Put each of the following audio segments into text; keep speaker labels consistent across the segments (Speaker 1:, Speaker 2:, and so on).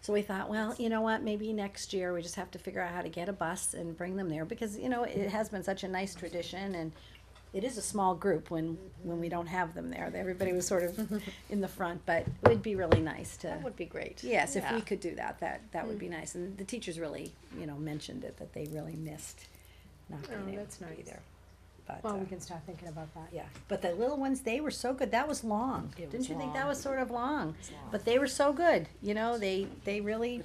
Speaker 1: So we thought, well, you know what, maybe next year we just have to figure out how to get a bus and bring them there, because, you know, it has been such a nice tradition and it is a small group when, when we don't have them there, everybody was sort of in the front, but it would be really nice to.
Speaker 2: That would be great.
Speaker 1: Yes, if we
Speaker 2: Yeah. Mm.
Speaker 1: could do that, that, that would be nice, and the teachers really, you know, mentioned it, that they really missed not
Speaker 2: Oh,
Speaker 1: being able
Speaker 2: that's
Speaker 1: to be
Speaker 2: nice.
Speaker 1: there. But,
Speaker 3: Well,
Speaker 1: uh,
Speaker 3: we can start thinking about that.
Speaker 1: yeah, but the little ones, they were so good, that was long,
Speaker 3: It
Speaker 1: didn't
Speaker 3: was
Speaker 1: you think that
Speaker 3: long.
Speaker 1: was sort of long?
Speaker 3: was long.
Speaker 1: But they were so good, you know, they, they really,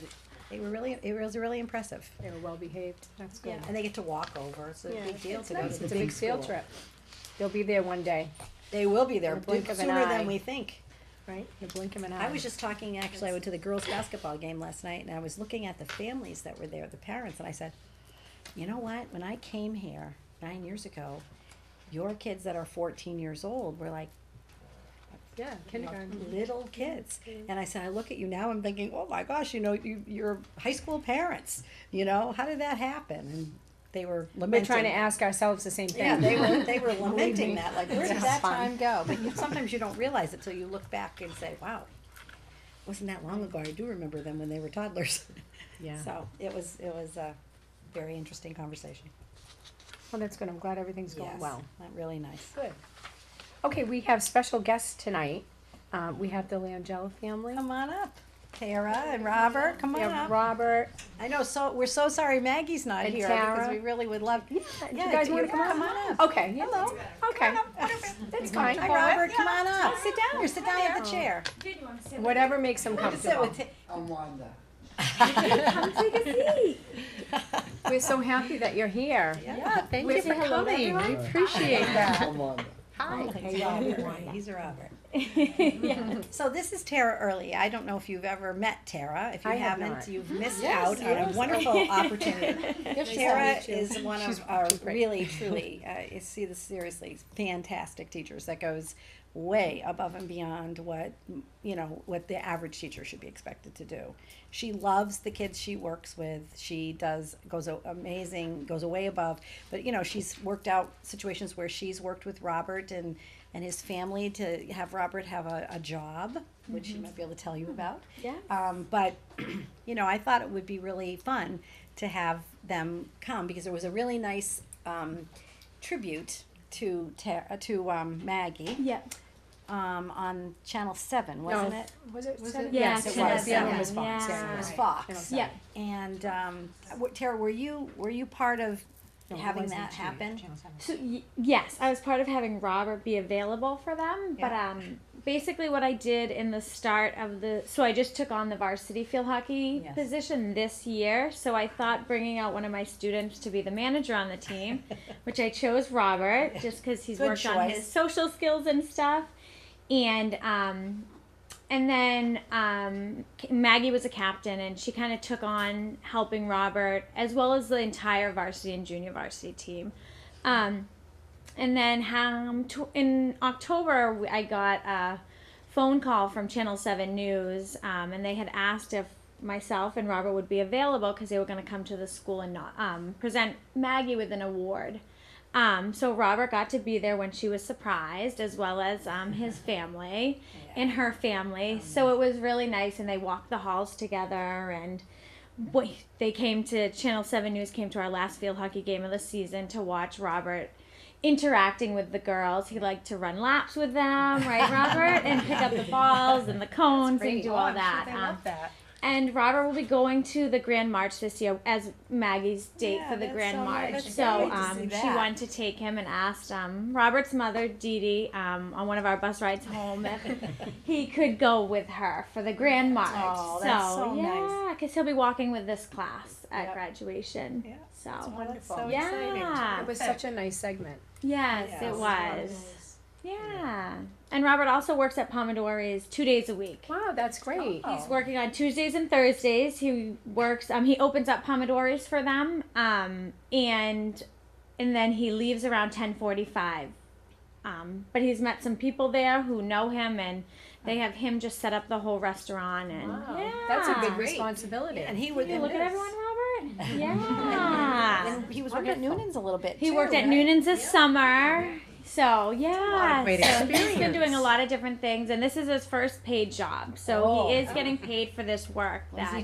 Speaker 1: they were really, it was really impressive.
Speaker 3: They were well behaved, that's good.
Speaker 1: And they get to walk over, it's a
Speaker 2: Yeah,
Speaker 1: big deal
Speaker 2: it's
Speaker 1: to go to
Speaker 2: nice.
Speaker 1: the
Speaker 3: It's a big field
Speaker 1: school.
Speaker 3: trip. They'll be there one day,
Speaker 1: They will be there
Speaker 3: In the blink of an
Speaker 1: sooner than
Speaker 3: eye.
Speaker 1: we think.
Speaker 3: right? You blink them an eye.
Speaker 1: I was just talking, actually, I went to the girls' basketball game last night, and I was looking at the families that were there, the parents, and I said, you know what, when I came here nine years ago, your kids that are fourteen years old were like
Speaker 3: Yeah, kindergarten.
Speaker 1: little kids. And I said, I look at you now, I'm thinking, oh my gosh, you know, you, you're high school parents, you know, how did that happen? And they were
Speaker 3: We're
Speaker 1: lamenting.
Speaker 3: trying to ask ourselves the same
Speaker 1: Yeah,
Speaker 3: thing.
Speaker 1: they were, they were lamenting
Speaker 3: me.
Speaker 1: that, like, where did
Speaker 3: It's
Speaker 1: that time
Speaker 3: fun.
Speaker 1: go? But you, sometimes you don't realize it till you look back and say, wow, wasn't that long ago? I do remember them when they were toddlers.
Speaker 3: Yeah.
Speaker 1: So it was, it was a very interesting conversation.
Speaker 3: Well, that's good, I'm glad everything's going
Speaker 1: Yes,
Speaker 3: well.
Speaker 1: not Really nice.
Speaker 3: Good. Okay, we have special guests tonight. Um, we have the Langella family.
Speaker 1: Come on up, Tara and Robert, come
Speaker 3: We
Speaker 1: on
Speaker 3: have
Speaker 1: up.
Speaker 3: Robert.
Speaker 1: I know, so, we're so sorry Maggie's not
Speaker 3: And
Speaker 1: here because
Speaker 3: Tara.
Speaker 1: we really would love. Yeah,
Speaker 3: Do you guys wanna
Speaker 1: yeah,
Speaker 3: come on?
Speaker 1: up?
Speaker 3: Okay. Hello. Okay, that's fine.
Speaker 1: Hi, Robert, come on up. Sit down. Here, sit down at the
Speaker 3: there.
Speaker 1: chair.
Speaker 3: Whatever makes them
Speaker 1: Sit
Speaker 3: comfortable.
Speaker 1: with Ta-
Speaker 4: I'm Wanda.
Speaker 3: We're so happy that you're here.
Speaker 1: Yeah, thank
Speaker 3: We're for coming. We appreciate that.
Speaker 4: I'm Wanda.
Speaker 1: He's Robert. He's a Robert. So this is Tara Early. I don't know if you've ever met Tara. If you
Speaker 3: I have
Speaker 1: haven't,
Speaker 3: not. Mm-hmm.
Speaker 1: you've missed out on a wonderful opportunity. Tara is one of our really, truly, uh, you see this seriously, fantastic teachers that goes way above and beyond what, you know, what the average teacher should be expected to do. She loves the kids she works with. She does, goes a- amazing, goes way above. But, you know, she's worked out situations where she's worked with Robert and, and his family to have Robert have a, a job, which she might be able to tell you about.
Speaker 3: Yeah.
Speaker 1: Um, but you know, I thought it would be really fun to have them come because there was a really nice um, tribute to Ter- uh, to um, Maggie
Speaker 3: Yeah.
Speaker 1: um, on Channel Seven, wasn't
Speaker 3: No.
Speaker 1: it?
Speaker 3: Was it? Was it?
Speaker 1: Yes, it was.
Speaker 3: The other one
Speaker 1: Yeah.
Speaker 3: was Fox.
Speaker 1: It
Speaker 3: Yeah.
Speaker 1: was
Speaker 3: Right.
Speaker 1: Fox.
Speaker 3: Yeah.
Speaker 1: And um, w- Tara, were you were you part of
Speaker 3: No, it
Speaker 1: having
Speaker 3: wasn't
Speaker 1: that
Speaker 3: Channel-
Speaker 1: happen?
Speaker 3: Channel seven.
Speaker 5: So y- yes, I was part of having Robert be available for them, but
Speaker 1: Yeah.
Speaker 5: um, basically what I did in the start of the so I just took on the varsity field hockey
Speaker 1: Yes.
Speaker 5: position this year. So I thought bringing out one of my students to be the manager on the team, which I chose Robert just because he's
Speaker 1: Good
Speaker 5: worked on his
Speaker 1: choice.
Speaker 5: social skills and stuff, and um, and then um, Maggie was a captain, and she kind of took on helping Robert as well as the entire varsity and junior varsity team. Um, and then um, tw- in October, we- I got a phone call from Channel 7 News, um, and they had asked if myself and Robert would be available because they were going to come to the school and not, um, present Maggie with an award. Um, so Robert got to be there when she was surprised, as well as um, his family and her family. So it was really nice, and they walked the halls together and boy, they came to Channel 7 News, came to our last field hockey game of the season to watch Robert interacting with the girls. He liked to run laps with them, right, Robert? and pick up the balls and the cones and
Speaker 1: Oh,
Speaker 5: do all that.
Speaker 3: I
Speaker 5: Um,
Speaker 3: love that.
Speaker 5: and Robert will be going to the Grand March this year as Maggie's date
Speaker 1: Yeah,
Speaker 5: for the
Speaker 1: that's
Speaker 5: Grand
Speaker 1: so nice.
Speaker 5: March.
Speaker 1: That's
Speaker 5: So
Speaker 1: great to see
Speaker 5: um, she
Speaker 1: that.
Speaker 5: wanted to take him and asked um, Robert's mother, Dee Dee, um, on one of our bus rides home if he could go with her for the Grand March.
Speaker 1: Oh, that's so nice.
Speaker 5: yeah, because he'll be walking with this class at
Speaker 1: Yep.
Speaker 5: graduation.
Speaker 1: Yeah,
Speaker 5: So
Speaker 1: wonderful.
Speaker 3: so
Speaker 5: yeah,
Speaker 3: It was such a nice segment.
Speaker 5: yes,
Speaker 1: Yes.
Speaker 5: it was. Yeah. and Robert also works at Pomodori's two days a week.
Speaker 3: Wow, that's great.
Speaker 5: He's working on Tuesdays and Thursdays. He works. Um, he opens up Pomodori's for them. Um, and and then he leaves around ten forty five. Um, but he's met some people there who know him, and they have him just set up the whole restaurant. And
Speaker 3: Wow,
Speaker 5: yeah,
Speaker 3: that's a big
Speaker 2: Great.
Speaker 3: responsibility.
Speaker 1: And he was
Speaker 5: You look at everyone, Robert. Yeah.
Speaker 1: And he was working at Noonan's a little bit.
Speaker 5: He
Speaker 1: too,
Speaker 5: worked at
Speaker 1: right?
Speaker 5: Noonan's this summer. So yeah,
Speaker 3: great
Speaker 5: so he's been doing a lot of different things, and this is his first paid job. So
Speaker 1: Oh.
Speaker 5: he is getting paid for this work.
Speaker 1: Was
Speaker 5: that
Speaker 1: he